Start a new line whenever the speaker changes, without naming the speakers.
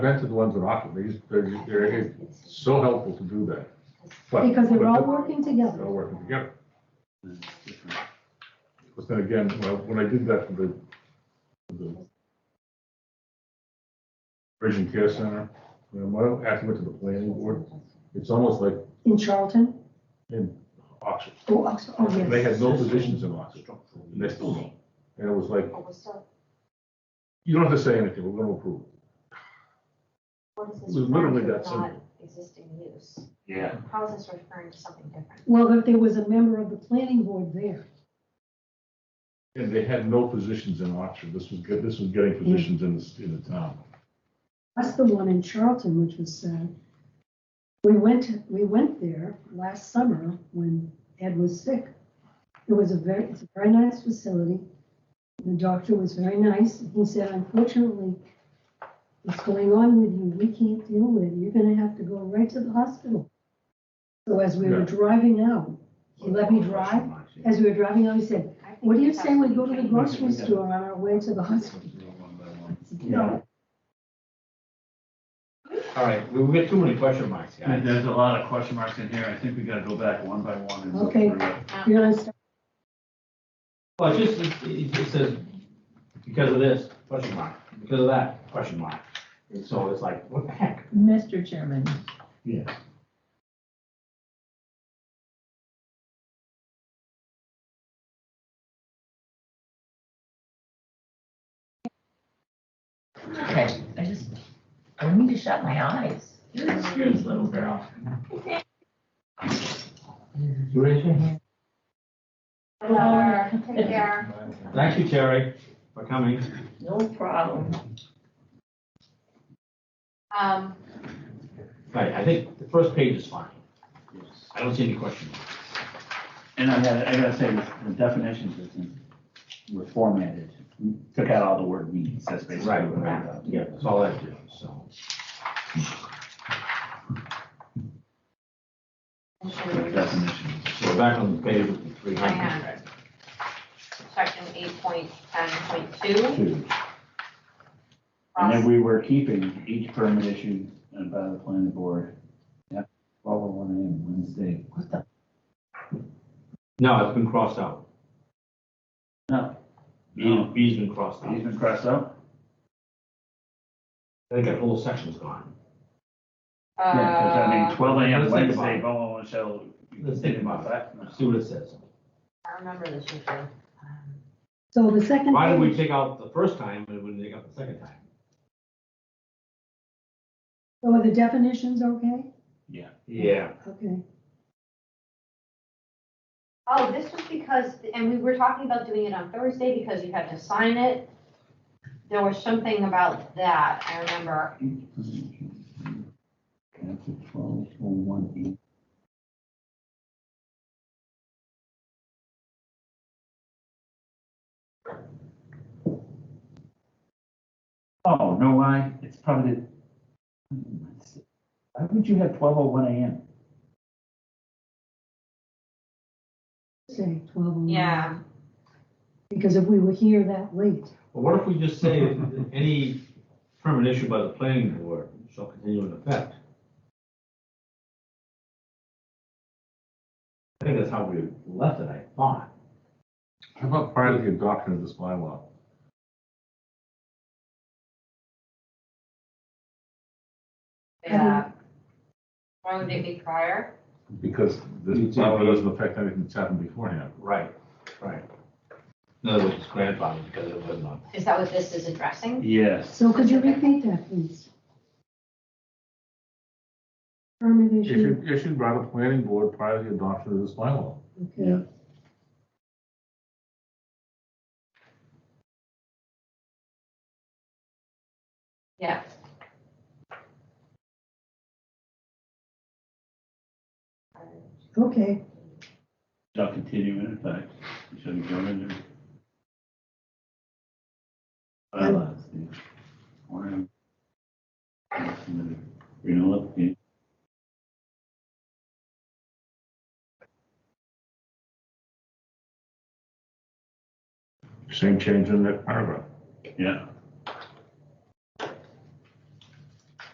rented the ones in Rockland, they just- they're, they're so helpful to do that. But-
Because they're
but the-
all working
They're
together.
all working together. But then again, well, when I did that for the, for the Bridge and Care Center, you know, when I actually went to the planning board, it's almost like
In Charlton,
in Oxford.
oh, Oxford, oh, yes.
They had no positions in Oxford, and they still don't. And it was like, you don't have to say anything, we're gonna approve. it.
What is
It was
this
literally
referring to,
that
not
simple.
existing use?
Yeah,
How is this referring to something different?
Well, there- there was a member of the planning board there.
And they had no positions in Oxford, this was, get- this was getting
Mm.
positions in the, in the town.
That's the one in Charlton, which was sad. We went, we went there last summer when Ed was sick. It was a very, it's a very nice facility. The doctor was very nice. He said, unfortunately, what's going on with you, we can't deal with. You're gonna have to go right to the hospital. So as we were
Yeah.
driving out, he let me drive. As we were driving out, he said,
I think
what do you
it's
say we
absolutely
go to the
changed.
grocery store on our way to the hospital? I said, No,
All right, we- we get too many question marks,
And
guys.
there's a lot of question marks in here. I think we gotta go back one by one and look
Okay.
through it.
you're gonna start
Well, it's just, it- it just says, because of this, question mark, because of that, question mark. And so it's like, what the heck?
Mr. Chairman,
Yeah.
I I just, I need to shut my eyes. You're a serious little girl.
Raise your hand.
Uh, Take care.
Thank you, Terry, for coming.
No problem.
Um,
Right, I think the first page is fine. I don't see any question marks.
And I gotta, I gotta say, the definitions is in- were formatted. We Took out all the word means. That's basically what I got.
Yeah, that's all I do, so.
Definitions.
So we're back on the page with the three
I am.
hundred.
section eight point ten point two.
Two. And then we were keeping each permit issued by the planning board. Yeah, twelve oh one AM Wednesday. What the?
No, it's been crossed out.
No,
B, B's been crossed out.
he's been crossed out?
I think that whole section's gone.
Yeah, 'cause I mean,
Uh,
twelve AM
Let's think about
Wednesday,
it.
blah, blah, blah, shall.
Let's think about
that.
Let's see what it says.
I remember this usually. Um,
So the second
Why did we
page,
take out the first time and we didn't take out the second time?
so are the definitions okay?
Yeah.
Okay.
Oh, this was because, and we were talking about doing it on Thursday because you had to sign it. There was something about that, I remember.
After twelve oh one AM. Oh, no, why? It's probably the. Why would you have twelve oh one AM?
Say twelve oh nine.
Yeah.
Because if we were here that late,
But what if we just say that any permit issued by the planning board shall continue in effect? I think that's how we left it, I thought.
How about prior to the adoption of this bylaw?
Yeah. Why would it be prior?
Because this
You do.
bylaw doesn't affect anything that's happened beforehand.
Right, right. In other words, it's grandfathered because it wasn't on.
Is that what this is addressing?
Yes.
so could you repeat that, please? Permit issue,
Issued, issued by the planning board prior to the adoption of this bylaw.
okay.
Yeah.
Okay,
Shall continue in effect. Shall go into. Bylaws. yeah. Or, um, Renewal application.
Same change in that paragraph.
Yeah.